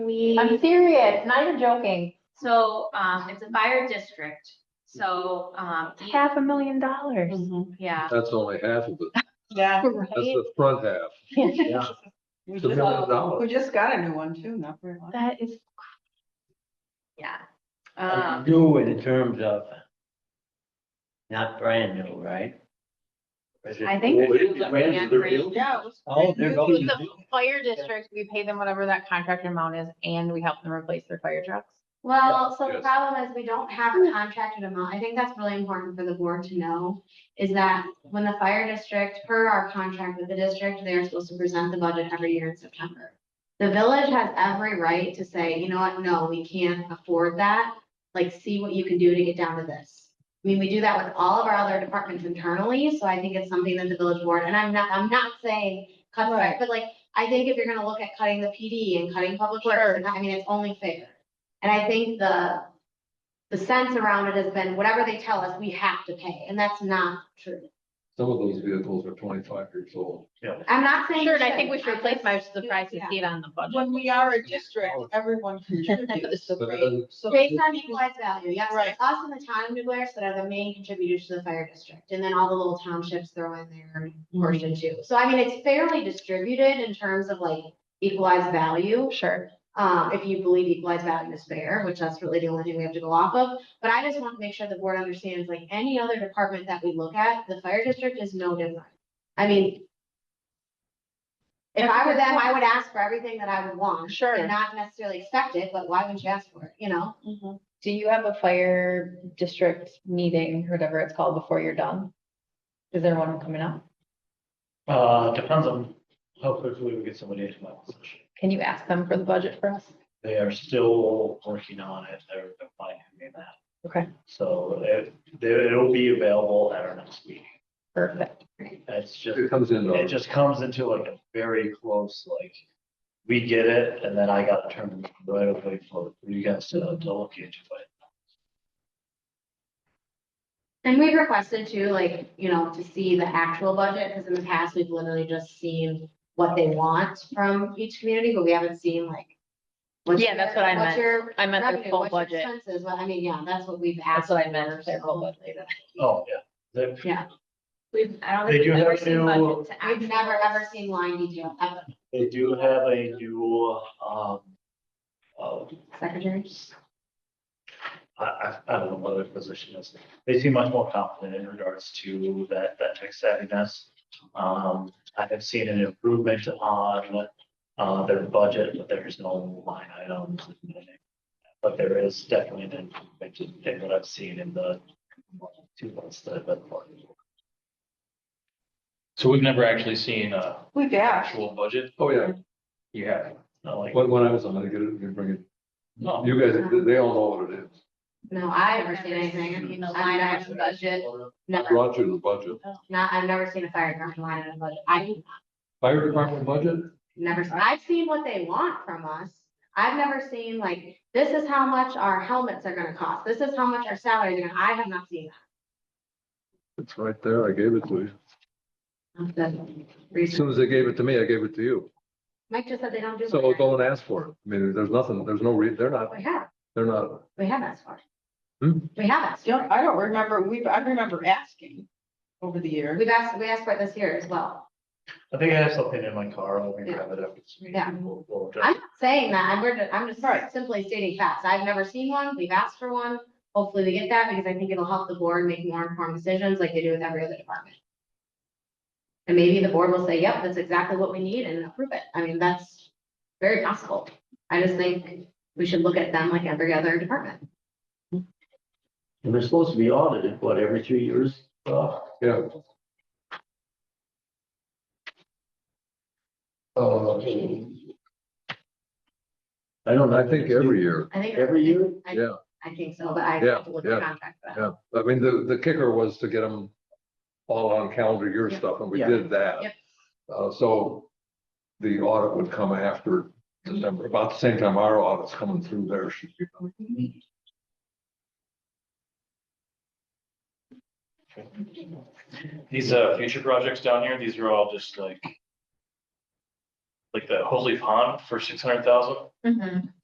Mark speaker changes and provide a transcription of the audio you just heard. Speaker 1: We,
Speaker 2: I'm serious, not even joking.
Speaker 1: so, um, it's a fire district, so, um, e-
Speaker 2: Half a million dollars.
Speaker 3: Mm-hmm.
Speaker 1: yeah.
Speaker 4: That's only half of it.
Speaker 3: Yeah.
Speaker 4: That's
Speaker 2: Right?
Speaker 4: the front half.
Speaker 5: Yeah.
Speaker 3: We
Speaker 4: It's a
Speaker 3: just-
Speaker 4: million
Speaker 3: we
Speaker 4: dollars.
Speaker 3: just got a new one too, not very long.
Speaker 2: That is,
Speaker 1: Yeah.
Speaker 5: It's
Speaker 1: Um,
Speaker 5: New in terms of. Not brand new, right? Is it-
Speaker 1: I think.
Speaker 4: Well, it is
Speaker 5: brand new, they're new?
Speaker 3: Yeah. it was-
Speaker 5: Oh, they're both
Speaker 2: with the
Speaker 5: new.
Speaker 2: fire district, we pay them whatever that contractor amount is and we help them replace their fire trucks.
Speaker 6: Well, so the
Speaker 4: Yes.
Speaker 6: problem is we don't have a contracted amount. I think that's really important for the board to know. Is that when the fire district, per our contract with the district, they're supposed to present the budget every year in September. The village has every right to say, you know what, no, we can't afford that. Like, see what you can do to get down to this. I mean, we do that with all of our other departments internally, so I think it's something that the village board, and I'm not, I'm not saying cut,
Speaker 3: Right.
Speaker 6: back, but like, I think if you're gonna look at cutting the PD and cutting public works, and I mean, it's only fair. And I think the, the sense around it has been, whatever they tell us, we have to pay, and that's not true.
Speaker 4: Some of those vehicles are twenty-five years old.
Speaker 6: I'm not saying.
Speaker 2: Sure,
Speaker 6: we
Speaker 2: and I think we should
Speaker 6: shouldn't.
Speaker 2: replace my surprise to
Speaker 6: Yeah.
Speaker 2: see it on the budget.
Speaker 3: When we are a district, everyone contributes.
Speaker 4: uh,
Speaker 3: so they- so
Speaker 6: Based on equalized value, yes,
Speaker 3: Right.
Speaker 6: it's us and the town of New Glarus that are the main contributors to the fire district, and then all the little townships throw in their portion too. So I mean, it's fairly distributed in terms of like equalized value.
Speaker 2: Sure.
Speaker 6: um, if you believe equalized value is fair, which that's really the only thing we have to go off of. But I just want to make sure the board understands, like any other department that we look at, the fire district is no different. I mean, if I were them, I would ask for everything that I would want.
Speaker 2: Sure.
Speaker 6: And not necessarily expect it, but why wouldn't you ask for it, you know?
Speaker 3: mm-hmm.
Speaker 2: Do you have a fire district meeting, whatever it's called, before you're done? Is there one coming up?
Speaker 5: Uh, depends on how quickly we get somebody into my position.
Speaker 2: Can you ask them for the budget for us?
Speaker 5: They are still working on it. They're defining that.
Speaker 2: Okay.
Speaker 5: So it, there- it'll be available at our next meeting.
Speaker 2: Perfect.
Speaker 5: It's just.
Speaker 4: It comes in.
Speaker 5: It just comes into like a very close, like, we get it, and then I gotta turn the right away for you guys to to look into it.
Speaker 6: And we requested to, like, you know, to see the actual budget, because in the past, we've literally just seen what they want from each community, but we haven't seen like. what's
Speaker 2: Yeah, that's what I
Speaker 6: your- what's
Speaker 2: meant.
Speaker 6: your
Speaker 2: I meant their
Speaker 6: revenue,
Speaker 2: full
Speaker 6: what's your
Speaker 2: budget.
Speaker 6: Expenses, well, I mean, yeah, that's what we've asked.
Speaker 2: That's what I
Speaker 6: for,
Speaker 2: meant, their whole
Speaker 6: so-
Speaker 2: budget.
Speaker 5: Oh, yeah. They-
Speaker 6: Yeah,
Speaker 1: We've, I don't
Speaker 5: They
Speaker 1: think
Speaker 5: do
Speaker 1: we've ever
Speaker 5: have
Speaker 1: seen
Speaker 5: new-
Speaker 1: budget to
Speaker 6: I've
Speaker 1: actuals.
Speaker 6: never ever seen line detail, ever,
Speaker 5: They do have a new, um, uh,
Speaker 6: secretary.
Speaker 5: I, I, I don't know what their position is. They seem much more confident in regards to that, that tech savviness. Um, I have seen an improvement on, uh, their budget, but there's no line item. But there is definitely an improvement in what I've seen in the two months that I've been. working.
Speaker 7: So we've never actually seen a
Speaker 3: We dash.
Speaker 7: actual budget?
Speaker 4: Oh, yeah.
Speaker 7: You have?
Speaker 5: Not like,
Speaker 4: When, when I was on, I get it, you bring it.
Speaker 7: No.
Speaker 4: You guys, they all know what it is.
Speaker 6: No, I've never seen anything, line item budget,
Speaker 4: I
Speaker 6: never,
Speaker 4: brought you the budget.
Speaker 6: not, I've never seen a fire department line item budget, I,
Speaker 4: Fire department budget?
Speaker 6: never, seen- I've seen what they want from us. I've never seen like, this is how much our helmets are gonna cost, this is how much our salaries are gonna, I have not seen
Speaker 4: It's right there. I gave it to you.
Speaker 6: that. That's
Speaker 4: As
Speaker 6: reason-
Speaker 4: soon as they gave it to me, I gave it to you.
Speaker 6: Mike just said they don't do.
Speaker 4: So go and ask for it. I mean, there's nothing, there's no re, they're not,
Speaker 6: We have,
Speaker 4: they're not.
Speaker 6: we have asked for it.
Speaker 4: Hmm?
Speaker 6: We have asked. for it.
Speaker 3: Don't, I don't remember, we, I remember asking over the years.
Speaker 6: We've asked, we asked for it this year as well.
Speaker 5: I think I have something in my car. I'll grab it up.
Speaker 6: Yeah.
Speaker 5: We'll- we'll adjust
Speaker 6: I'm not saying that, I'm, we're, just- I'm
Speaker 3: Right.
Speaker 6: just simply stating facts. I've never seen one, we've asked for one. Hopefully we get that because I think it'll help the board make more informed decisions like they do with every other department. And maybe the board will say, yep, that's exactly what we need and approve it. I mean, that's very possible. I just think we should look at them like every other department.
Speaker 5: And they're supposed to be audited, what, every three years? Uh,
Speaker 4: Yeah. Uh,
Speaker 5: I don't know.
Speaker 4: I think every year.
Speaker 6: I think.
Speaker 5: Every year?
Speaker 6: I-
Speaker 4: Yeah.
Speaker 6: I think so, but I
Speaker 4: Yeah,
Speaker 6: have to look at
Speaker 4: yeah,
Speaker 6: the contract for that.
Speaker 4: Yeah, I mean, the, the kicker was to get them all on calendar year
Speaker 6: Yep.
Speaker 4: stuff, and we
Speaker 5: Yeah.
Speaker 4: did that.
Speaker 6: Yep.
Speaker 4: Uh, so the audit would come after December, about the same time our audit's coming through there. should be coming.
Speaker 7: These uh future projects down here, these are all just like
Speaker 5: like the Holy Pond for six hundred thousand.